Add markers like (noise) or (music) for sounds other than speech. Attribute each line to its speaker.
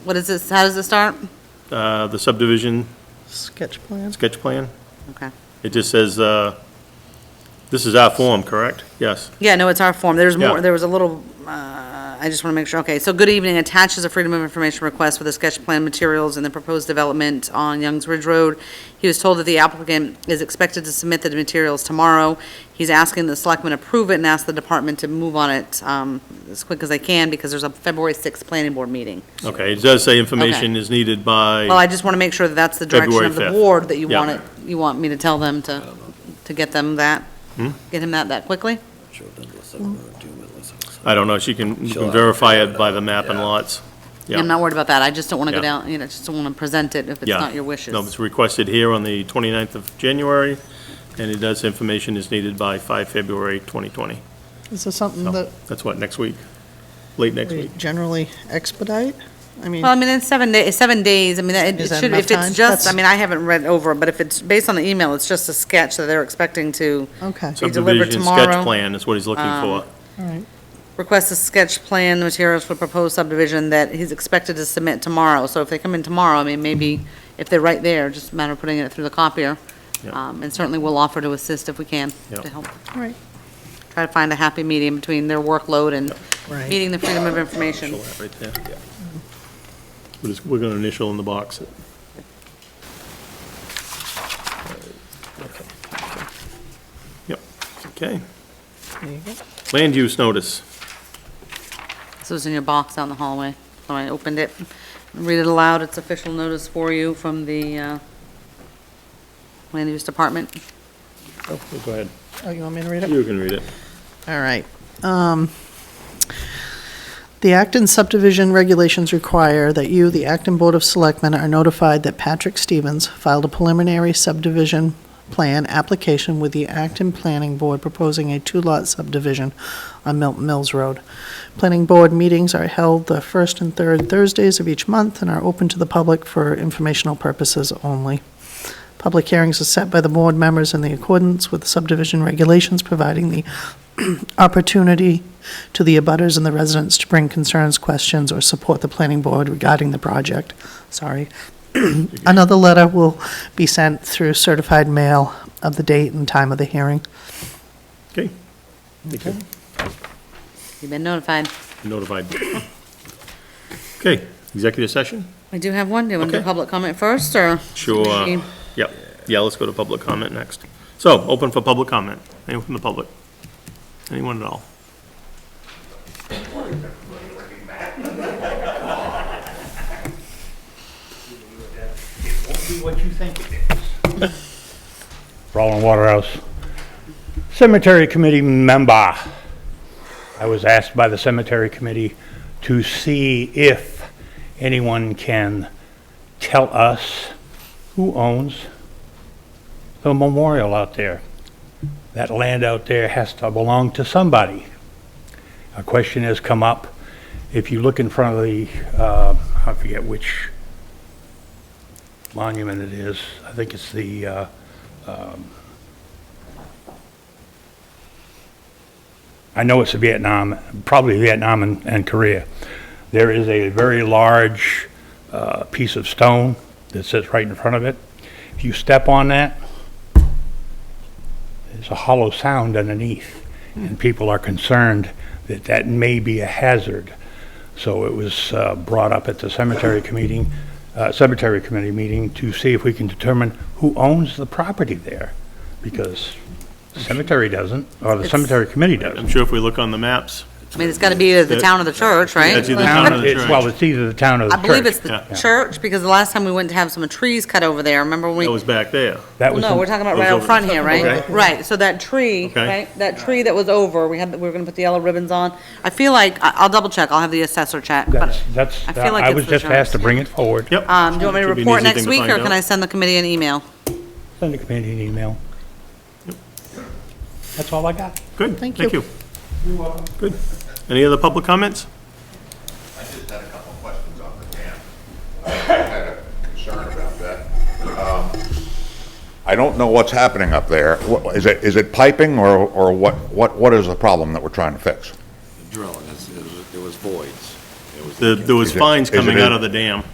Speaker 1: What is this, how does this start?
Speaker 2: uh, the subdivision
Speaker 3: Sketch plans?
Speaker 2: sketch plan.
Speaker 1: Okay.
Speaker 2: It just says, uh, this is our form, correct? Yes.
Speaker 1: Yeah, no, it's our form. There's more,
Speaker 2: Yeah.
Speaker 1: there was a little, uh, I just want to make sure, okay. So good evening, attaches a Freedom of Information request for the sketch plan materials and the proposed development on Youngs Ridge Road. He was told that the applicant is expected to submit the materials tomorrow. He's asking the selectmen approve it and ask the department to move on it um, as quick as they can because there's a February 6th planning board meeting.
Speaker 2: Okay, it does say information is needed
Speaker 1: Well,
Speaker 2: by,
Speaker 1: I just want to make sure that that's the direction
Speaker 2: February
Speaker 1: of the
Speaker 2: 5th.
Speaker 1: board, that you
Speaker 2: Yeah.
Speaker 1: want it, you want me to tell them to, to get them that,
Speaker 2: Hmm?
Speaker 1: get him that that quickly?
Speaker 2: I don't know, she can you
Speaker 4: She'll
Speaker 2: can
Speaker 4: have-
Speaker 2: verify it by the map and lots. Yeah.
Speaker 1: I'm not worried about that. I just don't want to go
Speaker 2: Yeah.
Speaker 1: down, you know, I just don't want to present it if it's
Speaker 2: Yeah.
Speaker 1: not your wishes.
Speaker 2: No, it's requested here on the 29th of January, and it does, information is needed by 5 February 2020.
Speaker 3: Is this something
Speaker 2: So
Speaker 3: that
Speaker 2: That's what, next week? Late next
Speaker 3: we
Speaker 2: week?
Speaker 3: generally expedite? I mean,
Speaker 1: Well, I mean, it's seven days, seven days. I mean, it
Speaker 3: Is
Speaker 1: it
Speaker 3: that
Speaker 1: should,
Speaker 3: enough
Speaker 1: if it's
Speaker 3: time?
Speaker 1: just, I
Speaker 3: That's-
Speaker 1: mean, I haven't read over, but if it's based on the email, it's just a sketch that they're expecting to
Speaker 3: okay,
Speaker 1: be delivered
Speaker 2: Subdivision sketch
Speaker 1: tomorrow.
Speaker 2: plan is what he's looking
Speaker 1: Um,
Speaker 2: for.
Speaker 3: all right.
Speaker 1: Request a sketch plan, the materials for proposed subdivision that he's expected to submit tomorrow. So if they come in tomorrow, I mean, maybe if they're right there, just a matter of putting it through the copier.
Speaker 2: Yeah.
Speaker 1: Um, And certainly we'll offer to assist if we can,
Speaker 2: Yeah.
Speaker 1: to help.
Speaker 3: All right.
Speaker 1: Try to find a happy medium between their workload and
Speaker 3: Right.
Speaker 1: meeting the freedom of information.
Speaker 2: Initial that right there. We're just- We're going to initial in the box. it. Yep, okay.
Speaker 3: There you go.
Speaker 2: Land use notice.
Speaker 1: This was in your box down the hallway, so I opened it. Read it aloud, it's official notice for you from the uh, Land Use Department.
Speaker 2: Oh, Go ahead.
Speaker 3: Oh, you want me to read it?
Speaker 2: You can read it.
Speaker 3: All right. Um, The Acton subdivision regulations require that you, the Acton Board of Selectmen, are notified that Patrick Stevens filed a preliminary subdivision plan application with the Acton Planning Board proposing a two-lot subdivision on Milton Mills Road. Planning Board meetings are held the first and third Thursdays of each month and are open to the public for informational purposes only. Public hearings are set by the board members in the accordance with subdivision regulations, providing the opportunity to the abutters and the residents to bring concerns, questions, or support the planning board regarding the project. Sorry. (clears throat) Another letter will be sent through certified mail of the date and time of the hearing.
Speaker 2: Okay. Thank you.
Speaker 1: You've been notified.
Speaker 2: Notified. Okay, executive session?
Speaker 1: We do have one. Do you want to do
Speaker 2: Okay.
Speaker 1: public comment first, or?
Speaker 2: Sure.
Speaker 1: Maybe-
Speaker 2: Yep. Yeah, let's go to public comment next. So, open for public comment. Anyone from the public? Anyone at all?
Speaker 5: be what you think it is. Roland Waterhouse. Cemetery Committee member. I was asked by the Cemetery Committee to see if anyone can tell us who owns the memorial out there. That land out there has to belong to somebody. A question has come up. If you look in front of the, uh, I forget which monument it is. I think it's the, uh, um, I know it's Vietnam, probably Vietnam and- and Korea. There is a very large uh, piece of stone that sits right in front of it. If you step on that, there's a hollow sound underneath, and people are concerned that that may be a hazard. So it was uh, brought up at the cemetery committee, uh, cemetery committee meeting to see if we can determine who owns the property there, because cemetery doesn't, or the
Speaker 1: It's-
Speaker 5: cemetery committee
Speaker 2: I'm
Speaker 5: doesn't.
Speaker 2: sure if we look on the maps,
Speaker 1: I mean, it's got to be either the town or the church, right?
Speaker 2: That's either town or the
Speaker 5: It's- Well,
Speaker 2: church.
Speaker 5: it's either the town or the
Speaker 1: I
Speaker 5: church.
Speaker 1: believe it's the
Speaker 2: Yeah.
Speaker 1: church, because the last time we went to have some trees cut over there, remember when we?
Speaker 2: That was back there.
Speaker 5: That was
Speaker 1: No,
Speaker 5: the-
Speaker 1: we're talking about
Speaker 2: Those
Speaker 1: right out
Speaker 2: over-
Speaker 1: front here, right?
Speaker 2: Okay.
Speaker 1: Right, so that tree,
Speaker 2: Okay.
Speaker 1: right, that tree that was over, we had, we were gonna put the yellow ribbons on. I feel like, I- I'll double check, I'll have the assessor check, but,
Speaker 5: That's, that's, uh,
Speaker 1: I feel like
Speaker 5: I
Speaker 1: it's
Speaker 5: was
Speaker 1: the
Speaker 5: just
Speaker 1: church.
Speaker 5: asked to bring it forward.
Speaker 2: Yep.
Speaker 1: um, do you want me to
Speaker 2: Should be an
Speaker 1: report
Speaker 2: easy
Speaker 1: next
Speaker 2: thing to
Speaker 1: week, or
Speaker 2: find
Speaker 1: can
Speaker 2: out.
Speaker 1: I send the committee an email?
Speaker 5: Send the committee an email. That's all I got.
Speaker 2: Good, thank you. You're welcome. Good. Any other public comments?
Speaker 6: I just had a couple of questions on the dam. I had a concern about that. Um, I don't know what's happening up there. What- Is it, is it piping or, or what, what, what is the problem that we're trying to fix?
Speaker 4: Drilling, it's- it was- it was voids. It
Speaker 2: The- There was fines coming out of the dam.